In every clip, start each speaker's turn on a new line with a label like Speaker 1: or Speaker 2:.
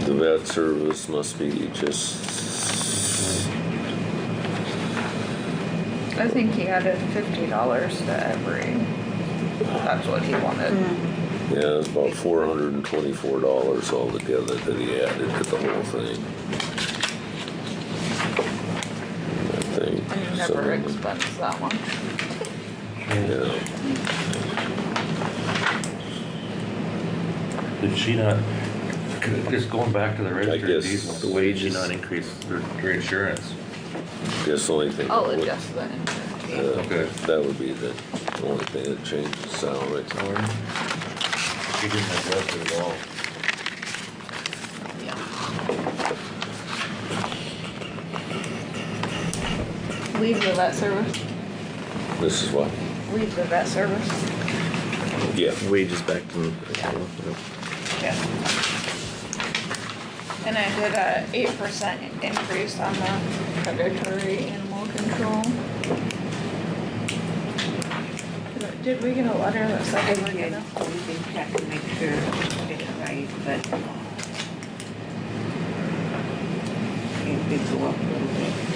Speaker 1: Internet service must be just.
Speaker 2: I think he added fifty dollars to every, that's what he wanted.
Speaker 1: Yeah, it's about four hundred and twenty-four dollars altogether that he added to the whole thing. I think.
Speaker 2: I never
Speaker 1: something-
Speaker 2: expensed that one.
Speaker 1: Yeah.
Speaker 3: Did she not, just going back to the registered
Speaker 1: guess
Speaker 3: diesel,
Speaker 1: the
Speaker 3: did she
Speaker 1: wages-
Speaker 3: not increase her her insurance?
Speaker 1: Guess the only thing. that
Speaker 2: I'll
Speaker 1: would-
Speaker 2: adjust that. in.
Speaker 1: yeah,
Speaker 3: Okay.
Speaker 1: That would be the only thing that changes the salary.
Speaker 3: She didn't adjust it at all.
Speaker 2: Leave the vet service,
Speaker 1: This is what?
Speaker 2: leave the vet service.
Speaker 1: Yeah.
Speaker 4: Wages back to.
Speaker 2: Yeah. Yeah. And I did a eight percent increase on the predatory animal control. Did- Did we get a letter that
Speaker 5: I
Speaker 2: said they were
Speaker 5: did,
Speaker 2: gonna?
Speaker 5: we did check to make sure it's right, but it did go up a little bit.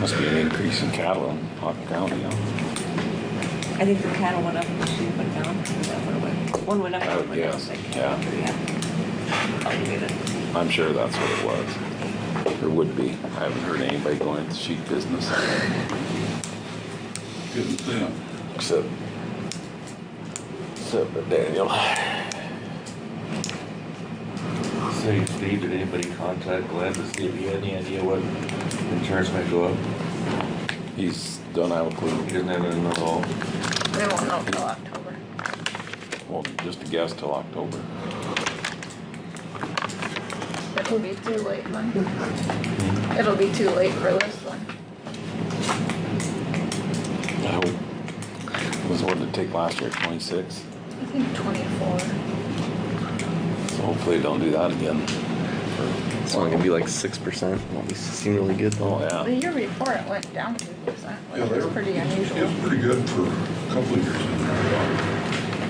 Speaker 6: Must be an increase in cattle in Hawken County, huh?
Speaker 5: I think the cattle went up and the sheep went down, is that what it was? One went up,
Speaker 6: I
Speaker 5: one
Speaker 6: would
Speaker 5: went down,
Speaker 6: guess,
Speaker 5: like,
Speaker 6: yeah.
Speaker 5: yeah. I'll get it.
Speaker 6: I'm sure that's what it was. Or would be. I haven't heard anybody going into sheep business.
Speaker 1: Except. Except for Daniel.
Speaker 3: Say, Steve, did anybody contact Glenn to see if he had any idea what insurance might go up?
Speaker 6: He's don't have a
Speaker 3: He
Speaker 6: clue.
Speaker 3: doesn't have it at all.
Speaker 2: They won't know till October.
Speaker 6: Well, just a guess till October.
Speaker 2: It'll be too late then. It'll be too late for this one.
Speaker 6: I hope. Was what did it take last year, twenty-six?
Speaker 2: I think twenty-four.
Speaker 6: So hopefully they don't do that again.
Speaker 4: It's only gonna be like six percent. Won't be seem really good
Speaker 6: Oh,
Speaker 4: though.
Speaker 2: The
Speaker 6: yeah.
Speaker 2: year before it went down two percent,
Speaker 7: Yeah,
Speaker 2: which
Speaker 7: they
Speaker 2: was
Speaker 7: were-
Speaker 2: pretty
Speaker 7: It
Speaker 2: unusual.
Speaker 7: was pretty good for a couple of years in there.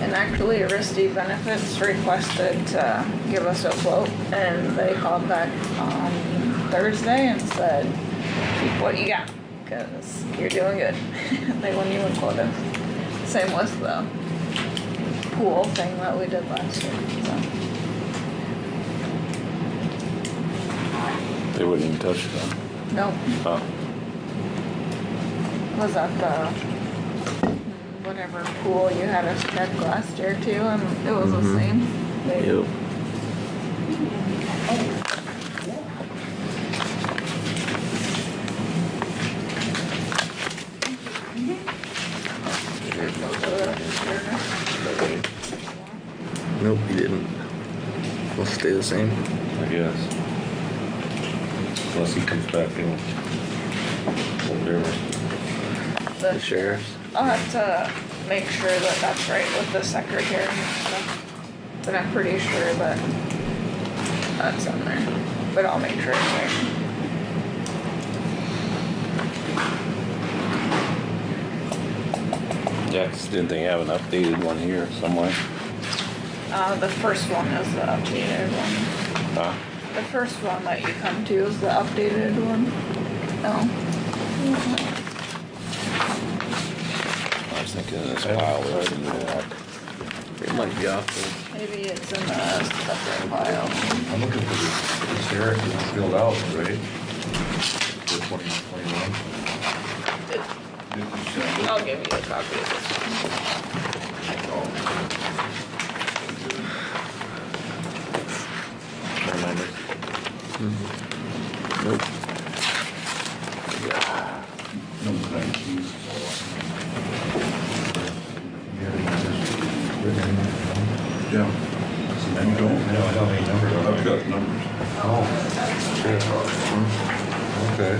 Speaker 2: And actually, Aristi Benefits requested to give us a quote, and they called back on Thursday and said, keep what you got, cause you're doing good. They wouldn't even quote us. Same with the pool thing that we did last year, so.
Speaker 6: They wouldn't even touch it then.
Speaker 2: Nope.
Speaker 6: Huh.
Speaker 2: was at the whatever pool you had us check last year too, and it was the same. They-
Speaker 4: Mm-hmm. Yep. Nope, you didn't. We'll stay the same.
Speaker 3: I guess. Unless he comes back in. Whatever.
Speaker 4: The
Speaker 2: The-
Speaker 4: sheriff's.
Speaker 2: I'll have to make sure that that's right with the secretary and stuff, but I'm pretty sure that that's in there, but I'll make sure it's right.
Speaker 6: Yeah, 'cause didn't they have an updated one here somewhere?
Speaker 2: Uh, the first one is the updated one.
Speaker 6: Huh?
Speaker 2: The first one that you come to is the updated one. No.
Speaker 6: I was thinking of this pile that was in the back.
Speaker 4: It might be off.
Speaker 2: Maybe it's in the separate file.
Speaker 3: I'm looking for the the sheriff is filled out, right? For twenty twenty-one.
Speaker 2: I'll give you a copy of this.
Speaker 3: Remember?
Speaker 4: though. Nope.
Speaker 7: No thanks. Yeah. You don't?
Speaker 3: No, I don't need numbers on
Speaker 7: I've got numbers.
Speaker 3: Oh, shit. Okay.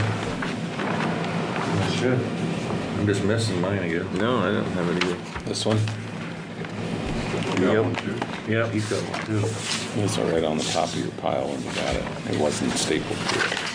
Speaker 3: Well, Shit. I'm just missing mine again.
Speaker 4: No, I don't have it either.
Speaker 6: This one?
Speaker 7: You got
Speaker 4: Yep.
Speaker 7: one too?
Speaker 3: Yep, he's got one too.
Speaker 6: It's right on the top of your pile when you got it. It wasn't stapled to it.